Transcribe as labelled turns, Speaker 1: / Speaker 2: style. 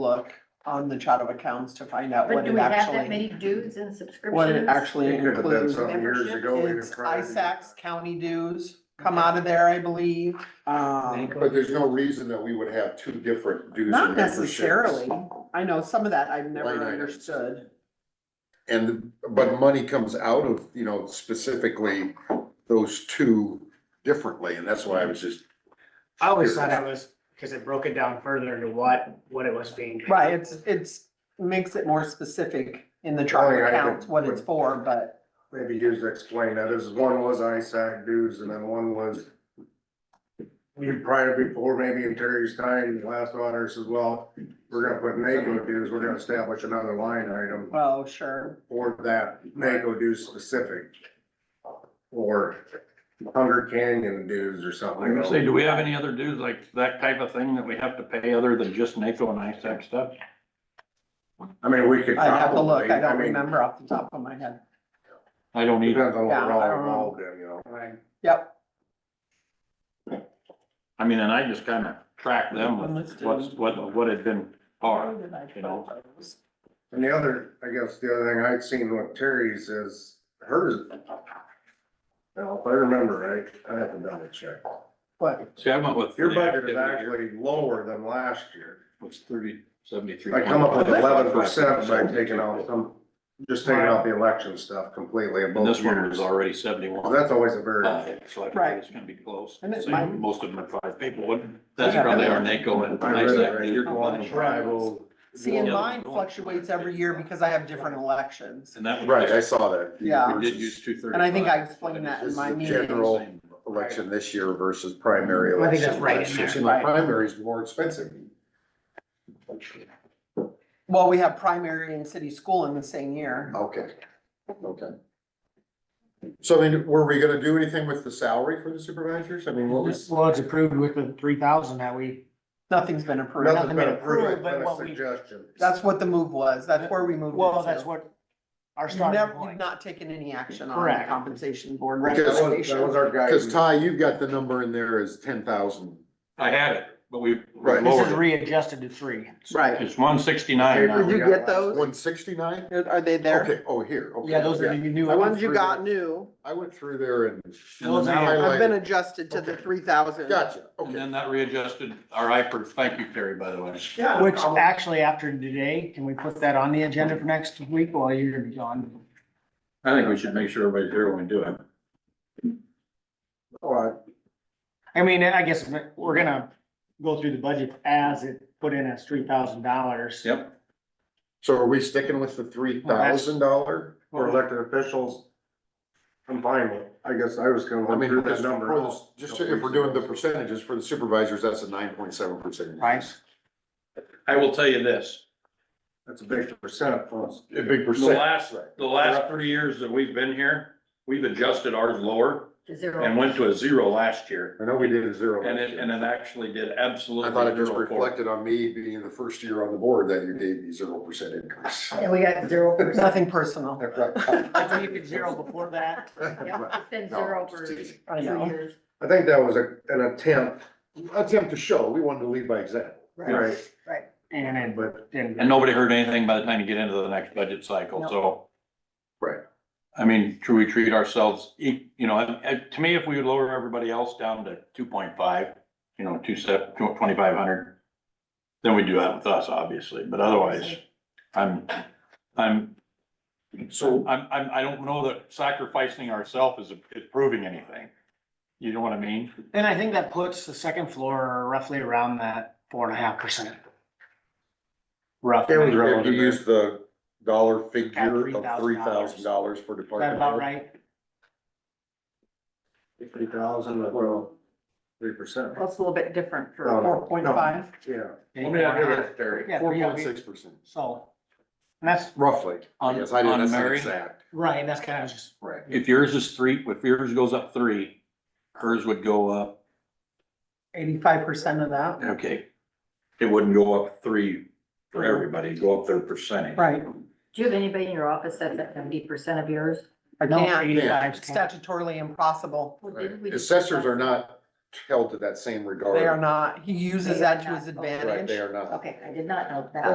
Speaker 1: look on the chart of accounts to find out
Speaker 2: But
Speaker 1: what
Speaker 2: do
Speaker 1: it
Speaker 2: we have that
Speaker 1: actually,
Speaker 2: many dues and
Speaker 1: what it
Speaker 2: subscriptions?
Speaker 1: actually
Speaker 3: It could have been
Speaker 1: includes.
Speaker 3: some years
Speaker 2: membership
Speaker 3: ago. we
Speaker 1: It's
Speaker 3: didn't try to-
Speaker 1: ISACs, county dues come out of there, I believe. Um,
Speaker 3: But there's no reason that we would have two different dues. and
Speaker 1: not
Speaker 3: memberships.
Speaker 1: necessarily. I know some of that I've
Speaker 3: Line
Speaker 1: never
Speaker 3: items.
Speaker 1: understood.
Speaker 3: And, but money comes out of, you know, specifically those two differently, and that's why I was just,
Speaker 4: I always thought it was, because it broke it down further into what, what it was being. paid.
Speaker 1: Right, it's, it's, makes it more specific in the chart
Speaker 3: Line
Speaker 1: of
Speaker 3: item,
Speaker 1: accounts, what it's
Speaker 3: but-
Speaker 1: for, but
Speaker 5: maybe you to explain that, this is one was ISAC dues and then one was prior before, maybe in Terry's time, the last auditor says, well, we're gonna put NACO dues, we're gonna establish another line item
Speaker 1: well, sure.
Speaker 5: for that NACO dues specific. Or Hunger Canyon dues or something.
Speaker 6: I was gonna say, do we have any other dues like that type of thing that we have to pay other than just NACO and ISAC stuff?
Speaker 5: I mean, we could.
Speaker 1: I'd have to look. I
Speaker 5: probably-
Speaker 1: don't
Speaker 5: mean,
Speaker 1: remember off the top of my head.
Speaker 6: I don't either.
Speaker 5: Depends on what
Speaker 1: Yeah,
Speaker 5: we're
Speaker 1: I
Speaker 5: all
Speaker 1: don't know.
Speaker 5: involved in, you know.
Speaker 4: Right.
Speaker 1: Yep,
Speaker 6: I mean, and I just kind of track them with what's, what, what had been par, you know?
Speaker 5: And the other, I guess the other thing I'd seen with Terry's is hers. Now, if I remember right, I have to double check.
Speaker 1: But
Speaker 6: See, I went with.
Speaker 5: Your
Speaker 6: the
Speaker 5: budget is
Speaker 6: activity here,
Speaker 5: actually lower than last year.
Speaker 6: Was thirty, seventy-three.
Speaker 5: I come up with eleven percent by taking out some, just taking out the election stuff completely in
Speaker 6: And
Speaker 5: both
Speaker 6: this one
Speaker 5: years.
Speaker 6: was already seventy-one.
Speaker 5: That's always a very,
Speaker 6: Uh, So I
Speaker 1: Right.
Speaker 6: figured it's gonna be close.
Speaker 1: And it
Speaker 6: Same,
Speaker 1: might-
Speaker 6: Most of them are five people, wouldn't, that's
Speaker 1: Yeah.
Speaker 6: probably our NACO and
Speaker 5: I read it
Speaker 6: ISAC.
Speaker 5: right.
Speaker 6: dues
Speaker 5: You're
Speaker 6: you're
Speaker 5: going
Speaker 6: going.
Speaker 5: tribal.
Speaker 1: see, and
Speaker 6: Yeah.
Speaker 1: mine fluctuates every year because I have different elections.
Speaker 6: And that.
Speaker 3: right, I saw that.
Speaker 1: Yeah.
Speaker 6: We did use two thirty-five.
Speaker 1: And I think I explained that in my
Speaker 3: This
Speaker 1: meeting.
Speaker 3: is the general election this year versus primary
Speaker 4: I think
Speaker 3: election.
Speaker 4: that's right in
Speaker 3: last year.
Speaker 4: there,
Speaker 3: See, my
Speaker 4: right.
Speaker 3: primary is more expensive.
Speaker 1: Well, we have primary and city school in the same year.
Speaker 3: Okay, okay. So I mean, were we gonna do anything with the salary for the supervisors? I mean, what was?
Speaker 4: This was approved with the three thousand that we,
Speaker 1: Nothing's been approved.
Speaker 5: nothing's been approved, it's
Speaker 4: but
Speaker 5: been a
Speaker 4: what we-
Speaker 5: suggestion.
Speaker 1: That's what the move was. That's where we moved it
Speaker 4: well, that's
Speaker 1: to.
Speaker 4: what our
Speaker 1: You've
Speaker 4: starting
Speaker 1: never, you've
Speaker 4: point.
Speaker 1: not taken any action on the
Speaker 4: Correct.
Speaker 1: compensation board
Speaker 3: Because that was-
Speaker 5: That was,
Speaker 1: recommendation.
Speaker 5: that was our
Speaker 3: Cause
Speaker 5: guidance.
Speaker 3: Ty, you've got the number in there as ten thousand.
Speaker 6: I had it, but we
Speaker 3: Right.
Speaker 4: This is
Speaker 6: lowered it.
Speaker 4: readjusted to three.
Speaker 1: Right.
Speaker 6: It's one sixty-nine
Speaker 1: Did
Speaker 6: now.
Speaker 1: you get those?
Speaker 3: One sixty-nine?
Speaker 1: Are they there?
Speaker 3: Okay, oh, here, okay.
Speaker 4: Yeah, those are the new.
Speaker 1: The ones you got new
Speaker 3: I went through there and.
Speaker 4: Those are-
Speaker 1: have been
Speaker 3: highlighted.
Speaker 1: adjusted to the
Speaker 3: Okay.
Speaker 1: three thousand.
Speaker 3: Gotcha,
Speaker 6: And
Speaker 3: okay.
Speaker 6: then that readjusted our IPERS. Thank you, Terry, by the way.
Speaker 1: Yeah. no
Speaker 4: Which
Speaker 1: problem.
Speaker 4: actually after today, can we put that on the agenda for next week while you're gonna be gone?
Speaker 6: I think we should make sure everybody's here when we do it.
Speaker 5: All right.
Speaker 4: I mean, I guess we're gonna go through the budget as it put in as three thousand dollars.
Speaker 6: Yep.
Speaker 3: So are we sticking with the three thousand dollar?
Speaker 5: for elected officials. I'm fine with, I guess I was gonna
Speaker 3: I
Speaker 5: look
Speaker 3: mean,
Speaker 5: through that
Speaker 3: just
Speaker 5: number.
Speaker 3: for the- just if we're doing the percentages for the supervisors, that's a nine point seven percent.
Speaker 4: Right.
Speaker 6: I will tell you this,
Speaker 5: That's a big percent for us.
Speaker 3: A big
Speaker 6: the
Speaker 3: percent.
Speaker 6: last, the last three years that we've been here, we've adjusted ours lower
Speaker 2: Is there a-
Speaker 6: and went to a zero last year.
Speaker 3: I know we did a zero.
Speaker 6: And
Speaker 3: last
Speaker 6: it,
Speaker 3: year.
Speaker 6: and it actually did absolutely.
Speaker 3: I thought it just
Speaker 6: zero for-
Speaker 3: reflected on me being the first year on the board that you gave me zero percent increase.
Speaker 2: And we got zero percent.
Speaker 1: Nothing personal.
Speaker 4: I believe it's zero before that.
Speaker 2: It's been
Speaker 3: No,
Speaker 2: zero
Speaker 3: just
Speaker 2: for
Speaker 3: teasing.
Speaker 1: I
Speaker 2: two
Speaker 1: know.
Speaker 2: years.
Speaker 5: I think that was a- an attempt,
Speaker 3: Attempt to show, we wanted to lead by example.
Speaker 5: right,
Speaker 4: And it,
Speaker 5: but
Speaker 4: and.
Speaker 6: And nobody heard anything by the time you get into the next budget cycle,
Speaker 1: No.
Speaker 6: so.
Speaker 3: Right.
Speaker 6: I mean, should we treat ourselves, e- you know, and- and to me, if we would lower everybody else down to two point five, you know, two sep, twenty-five hundred, then we do that with us, obviously, but otherwise, I'm, I'm,
Speaker 3: So
Speaker 6: I'm, I'm, I don't know that sacrificing ourselves is is proving anything. You know what I mean?
Speaker 4: And I think that puts the second floor roughly around that four and a half percent. Roughly.
Speaker 3: if you use the dollar figure
Speaker 4: $3,000.
Speaker 3: of three thousand dollars for
Speaker 4: Is that
Speaker 3: department.
Speaker 4: about
Speaker 3: head,
Speaker 4: right?
Speaker 5: fifty thousand, well, three percent.
Speaker 2: Well, it's a little bit different for,
Speaker 5: No, no.
Speaker 1: Four point five.
Speaker 5: Yeah,
Speaker 3: Let me have it,
Speaker 4: Yeah,
Speaker 3: Terry. Four
Speaker 4: three, yeah,
Speaker 3: point
Speaker 4: we-
Speaker 3: six percent,
Speaker 4: So, and that's,
Speaker 3: roughly.
Speaker 6: On-
Speaker 3: Yes, I didn't,
Speaker 6: on
Speaker 3: that's not
Speaker 6: Mary?
Speaker 3: exact.
Speaker 4: right, and that's kind of just,
Speaker 3: Right.
Speaker 6: If yours is three, if yours goes up three, hers would go up
Speaker 1: Eighty-five percent of that,
Speaker 6: Okay. It wouldn't go up three for everybody, it'd go up their percentage.
Speaker 1: right.
Speaker 2: do you have anybody in your office that's at seventy percent of yours?
Speaker 1: I
Speaker 4: no,
Speaker 1: can't,
Speaker 4: eighty-five.
Speaker 1: It's statutorily impossible.
Speaker 2: Well,
Speaker 3: Right.
Speaker 2: didn't we just
Speaker 3: Assessors are
Speaker 2: discuss-
Speaker 3: not held to that same regard.
Speaker 1: They are not, he uses
Speaker 2: They are
Speaker 1: that to
Speaker 2: not.
Speaker 1: his
Speaker 2: Okay.
Speaker 3: Right,
Speaker 1: advantage.
Speaker 3: they are not.
Speaker 2: Okay, I did not know that.